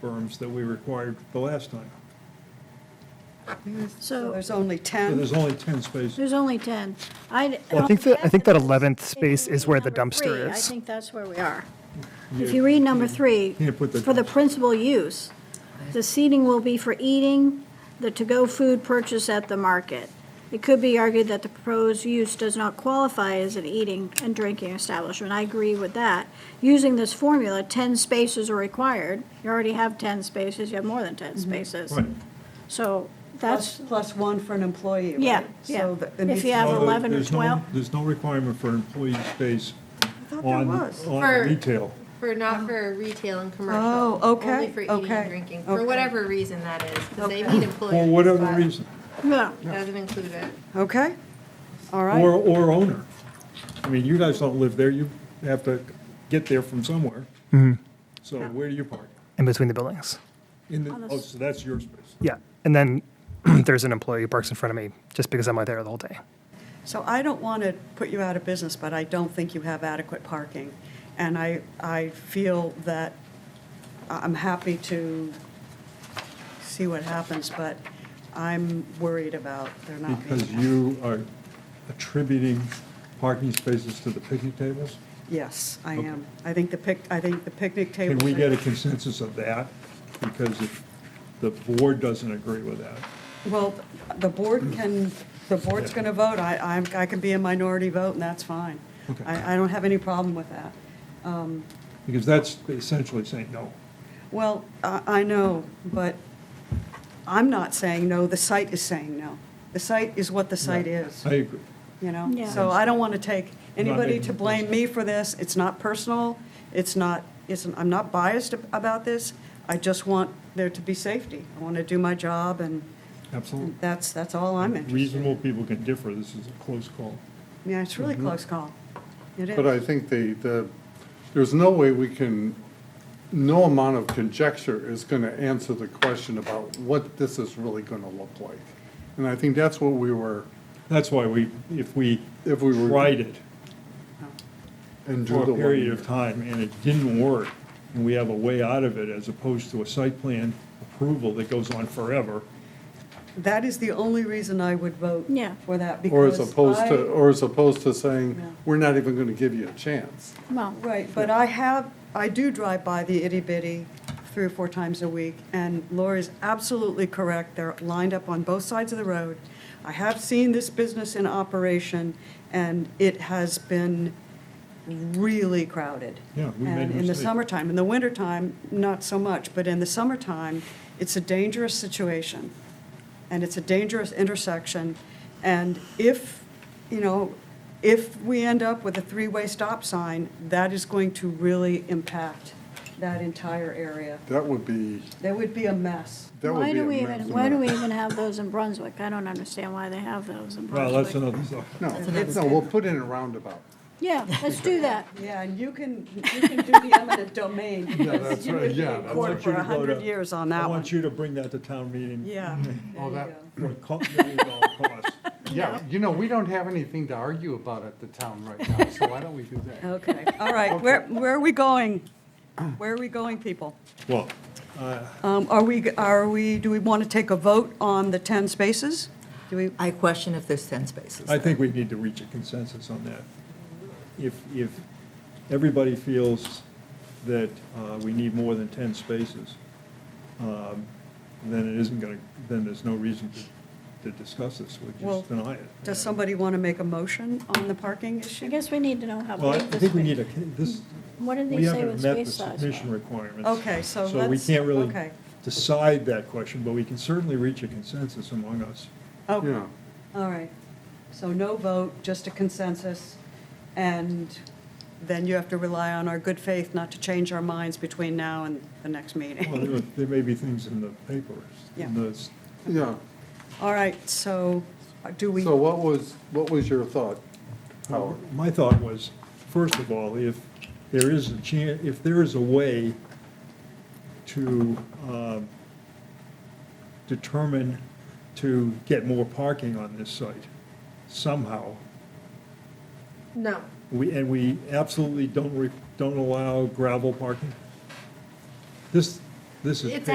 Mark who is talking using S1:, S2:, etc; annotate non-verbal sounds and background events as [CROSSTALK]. S1: forms that we required the last time.
S2: So-
S3: So there's only
S1: So
S3: 10.
S1: there's only 10 spaces.
S2: There's only 10. I.
S4: Well, I think that, I think that 11th space
S2: If you
S4: is where
S2: read
S4: the
S2: number three,
S4: dumpster
S2: I
S4: is.
S2: think that's where we are. If you read number three,
S1: Can't put the
S2: for the
S1: dumpster.
S2: principal use, the seating will be for eating, the to-go food purchase at the market. It could be argued that the proposed use does not qualify as an eating and drinking establishment. I agree with that. Using this formula, 10 spaces are required. You already have 10 spaces, you have more than 10 spaces.
S1: Mm-hmm. Right.
S2: So
S3: Plus,
S2: that's,
S3: plus one for an employee, right?
S2: yeah, yeah.
S3: So that- it
S2: If
S3: needs
S2: you
S3: to-
S2: have
S1: No, there-
S2: 11 or
S1: there's no-
S2: 12.
S1: There's no requirement for employee space
S3: I thought there
S1: on,
S3: was.
S1: on
S5: For-
S1: retail.
S5: For, not for retail and commercial.
S3: Oh, okay,
S5: Only for eating
S3: okay,
S5: and drinking, for
S3: okay.
S5: whatever reason that is, because they
S3: Okay.
S5: need employees.
S1: For whatever
S5: but
S1: reason,
S2: Yeah.
S5: Doesn't include it.
S3: Okay, all
S1: or,
S3: right.
S1: or owner. I mean, you guys don't live there, you have to get there from somewhere. So where do you park?
S4: In between the buildings.
S1: In the, oh, so that's your space.
S4: Yeah. And then [CLEARS THROAT] there's an employee who parks in front of me just because I'm out there the whole day.
S3: So I don't want to put you out of business, but I don't think you have adequate parking. And I, I feel that I'm happy to see what happens, but I'm worried about there not being.
S1: Because you are attributing parking spaces to the picnic tables?
S3: Yes, I am. I think the pic, I think the picnic table.
S1: Can we get a consensus of that? Because if the board doesn't agree with that,
S3: Well, the board can, the board's going to vote. I, I'm- I can be a minority vote, and that's fine.
S1: Okay.
S3: I, I don't have any problem with that.
S1: because that's essentially saying no.
S3: Well, I, I know, but I'm not saying no, the site is saying no. The site is what the site is,
S1: I agree.
S3: you know?
S2: Yeah.
S3: So I don't want to take anybody
S1: making
S3: to
S1: it
S3: blame me for this. It's not personal, it's not, it's, I'm not biased ab- about this. I just want there to be safety. I want to do my job, and
S1: Absolutely.
S3: that's, that's all I'm interested in.
S1: Reasonable people can differ, this is a close call.
S3: Yeah, it's really close call. It is.
S6: Mm-hmm. But I think the, the, there's no way we can, no amount of conjecture is gonna answer the question about what this is really gonna look like. And I think that's what we were,
S1: That's why we, if we
S6: If we were-
S1: tried it
S6: and drew
S1: for
S6: the
S1: a
S6: one
S1: period of
S6: year.
S1: time and it didn't work, and we have a way out of it as opposed to a site plan approval that goes on forever.
S3: That is the only reason I would vote
S2: Yeah.
S3: for that
S6: Or
S3: because
S6: as opposed to,
S3: I-
S6: or as opposed to saying,
S3: Yeah.
S6: we're not even gonna give you a chance.
S2: Well,
S3: Right, but I have, I do drive by the itty bitty three or four times a week, and Lori's absolutely correct. They're lined up on both sides of the road. I have seen this business in operation, and it has been really crowded.
S1: Yeah, we made a
S3: And in the
S1: mistake.
S3: summertime, in the wintertime, not so much, but in the summertime, it's a dangerous situation. And it's a dangerous intersection. And if, you know, if we end up with a three-way stop sign, that is going to really impact that entire area.
S6: That would be,
S3: That would be a mess.
S6: that
S2: Why
S6: would be
S2: do
S6: a
S2: we
S6: mess.
S2: even, why do we even have those in Brunswick? I don't understand why they have those in
S1: Well, that's
S2: Brunswick.
S1: another, story.
S6: No, no, we'll put in a roundabout.
S2: Yeah, let's do that.
S3: Yeah, and you can, you can do the
S1: [LAUGHS]
S3: eminent domain.
S6: Yeah,
S3: because
S6: that's
S3: you
S6: right,
S3: would be in
S6: yeah, I
S1: I
S3: court
S1: want you
S3: for
S1: to go
S3: 100
S1: to-
S3: years on
S1: I
S3: that one.
S1: want you to bring that to town meeting. [LAUGHS]
S3: Yeah. there
S6: Oh,
S3: you
S6: that-
S1: For a co- million dollar
S3: [LAUGHS]
S1: cost.
S6: Yeah, you know, we don't have anything to argue about at the town right now, so why don't we do
S3: go.
S6: that?
S3: Okay, all right, where, where are we going? Where are we going, people?
S1: Well,
S3: Um, Are we, are we, do we want to take a vote on the 10 spaces? Do we,
S7: I question if there's 10 spaces.
S1: I think we need to reach a consensus on that. If, if everybody feels that uh, we need more than 10 spaces, um, then it isn't going to, then there's no reason to, to discuss this, we
S3: Well,
S1: just deny it.
S3: does somebody want to make a motion on the parking
S2: I
S3: issue?
S2: guess we need to know how
S1: Well, I
S2: big this.
S1: think we
S2: thing-
S1: need a, con- this,
S2: What did
S1: we
S2: they say with
S1: haven't met the
S2: space size?
S1: submission requirements.
S3: Okay, so
S1: So we
S3: let's-
S1: can't really
S3: okay.
S1: decide that question, but we can certainly reach a consensus among us.
S3: Okay,
S2: Oh.
S6: Yeah.
S3: Oh, all right. So no vote, just a consensus, and then you have to rely on our good faith not to change our minds between now and the next
S1: Well, there
S3: meeting.
S1: are- there may be things in the papers, in
S3: Yeah.
S1: the
S6: Yeah,
S3: All right, so uh, do we,
S6: so what was, what was your thought, Howard?
S1: My thought was, first of all, if there is a chan, if there is a way to um, determine to get more parking on this site somehow,
S5: No.
S1: we, and we absolutely don't, re- don't allow gravel parking, this, this is.
S5: It's